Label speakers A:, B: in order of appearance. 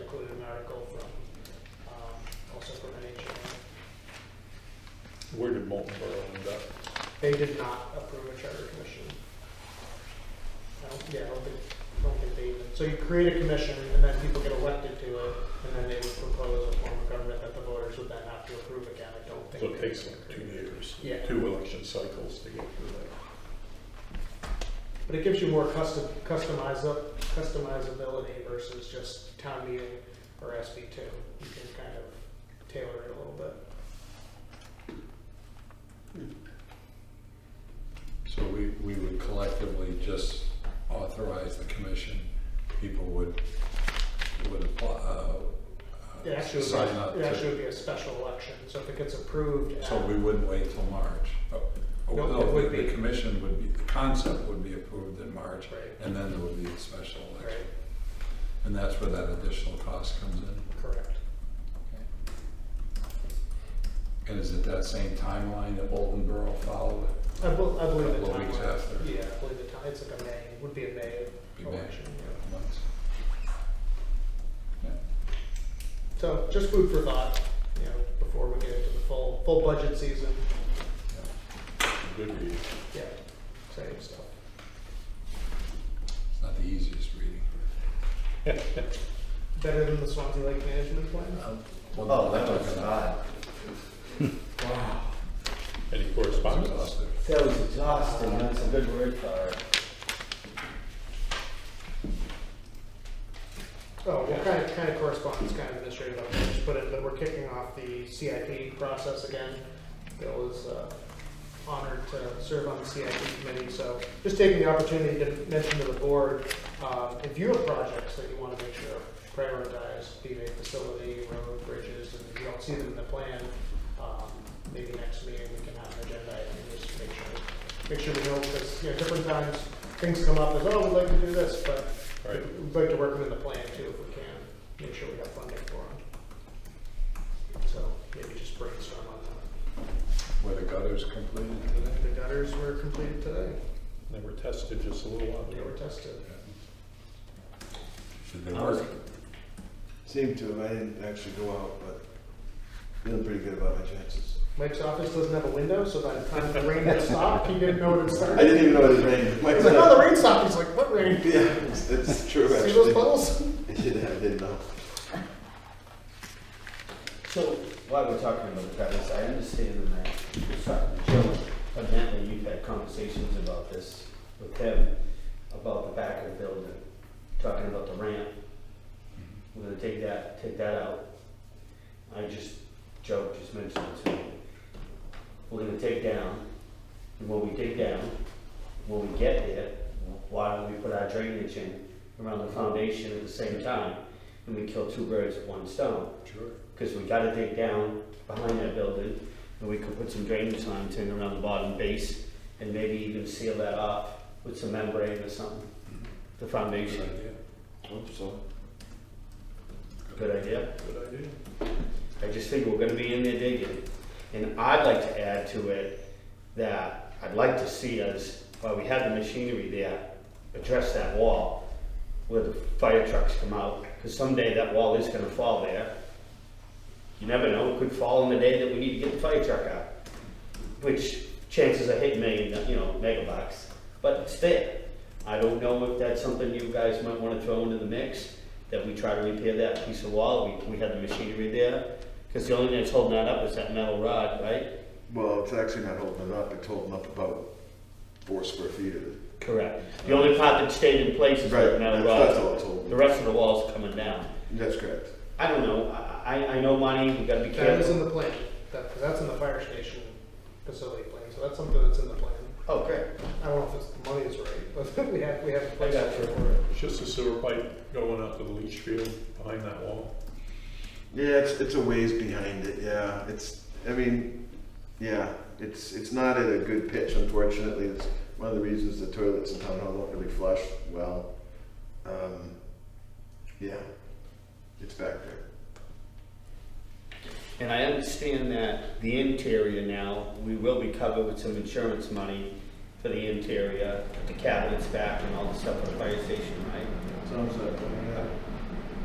A: include an article from, um, also from NHMA.
B: Where did Molten Borough end up?
A: They did not approve a charter commission. I don't, yeah, I don't think, I don't think they even, so you create a commission and then people get elected to it, and then they would propose a form of government that the voters would then have to approve again, I don't think.
B: So it takes like two years,
A: Yeah.
B: two election cycles to get through that.
A: But it gives you more custom, customiza customizability versus just town meeting or SB two. You can kind of tailor it a little bit.
C: So we, we would collectively just authorize the commission, people would, would apply, uh,
A: It
C: uh,
A: actually,
C: sign up
A: would be- it actually
C: to.
A: would be a special election, so if it gets approved at.
C: So we wouldn't wait till March. Oh, oh,
A: No,
C: no,
A: it would
C: the-
A: be-
C: The commission would be, the concept would be approved in March,
A: Right,
C: and then there would be a special
A: right,
C: election. And that's where that additional cost comes in.
A: correct.
C: And is it that same timeline that Bolton Borough followed?
A: I bel- I believe the
C: Couple of
A: time.
C: weeks after.
A: Yeah, I believe the time, it's like a May, would be a May
C: Be May.
A: election, yeah.
C: Months.
A: So just food for thought, you know, before we get into the full, full budget season,
B: Good read.
A: yeah, same stuff.
C: It's not the easiest reading.
A: Better than the Swansea Lake Management Plan?
C: Well, no,
D: Oh,
C: that's
D: that was
C: not gonna-
D: not,
C: Wow.
B: Any
C: It's
B: correspondence?
C: exhaustive.
D: that was exhausting, that's a good word for it.
A: Oh, well, kind of, kind of correspondence, kind of administrative, update, just put it, that we're kicking off the CIP process again. Bill is uh, honored to serve on the CIP committee, so just taking the opportunity to mention to the board, um, if you have projects that you want to make sure are prioritized, be they facility, road, bridges, and you don't see them in the plan, um, maybe next meeting we can have an agenda item, and just make sure, make sure we know, because, you know, different times, things come up as, oh, we'd like to do this, but
B: Right.
A: We'd like to work within the plan too, if we can, make sure we have funding for them. So maybe just brainstorm on that.
C: Where the gutters completed today?
A: The gutters were completed today,
B: They were tested just a little while
A: they were
B: ago.
A: tested.
C: Did they work?
D: Seemed to, I didn't actually go out, but feeling pretty good about my chances.
A: Mike's office doesn't have a window, so by the time the rain had stopped, he didn't know it had
D: I
A: started.
D: didn't even know it was raining.
A: He's like, no, the rain stopped, he's like, what rain?
D: Yeah, it's, it's true, actually.
A: See those puddles?
D: Yeah, I didn't know.
E: So while we're talking about gutters, I understand that, sorry, Joe, evidently you've had conversations about this with him, about the back of the building, talking about the ramp. We're gonna take that, take that out. I just, Joe just mentioned it to me. We're gonna take down, and when we take down, when we get there, why don't we put our drainage in around the foundation at the same time? And we kill two birds with one stone.
C: Sure.
E: Because we gotta dig down behind that building, and we could put some drainage lines in around the bottom base, and maybe even seal that off with some membrane or something, the
C: Good
E: foundation.
C: idea.
D: Hope so.
E: Good idea?
B: Good idea.
E: I just think we're gonna be in there digging. And I'd like to add to it that I'd like to see us, while we have the machinery there, address that wall where the fire trucks come out, because someday that wall is gonna fall there. You never know, it could fall on the day that we need to get the fire truck out, which chances are hit million, you know, megabucks, but it's there. I don't know if that's something you guys might wanna throw into the mix, that we try to repair that piece of wall, we, we have the machinery there, because the only thing that's holding that up is that metal rod, right?
D: Well, it's actually not holding it up, it's holding up about four square feet of it.
E: Correct. The only part that stayed in place is
D: Right,
E: that metal
D: that's- that's all
E: rod.
D: it's holding.
E: The rest of the wall's coming down.
D: That's correct.
E: I don't know, I, I, I know money, we gotta be
A: That is
E: careful.
A: in the plan, that, 'cause that's in the fire station facility plan, so that's something that's in the plan.
E: Oh, great.
A: I don't know if it's, the money is right, but we have, we have a
E: I
A: place.
E: got you.
B: It's just a sewer pipe going up to the leach field behind that wall.
D: Yeah, it's, it's a ways behind it, yeah, it's, I mean, yeah, it's, it's not at a good pitch unfortunately, it's one of the reasons the toilets in town hall don't really flush well. Um, yeah, it's back there.
E: And I understand that the interior now, we will be covered with some insurance money for the interior, the cabinets back and all the stuff for the fire station, right?
D: Sounds like.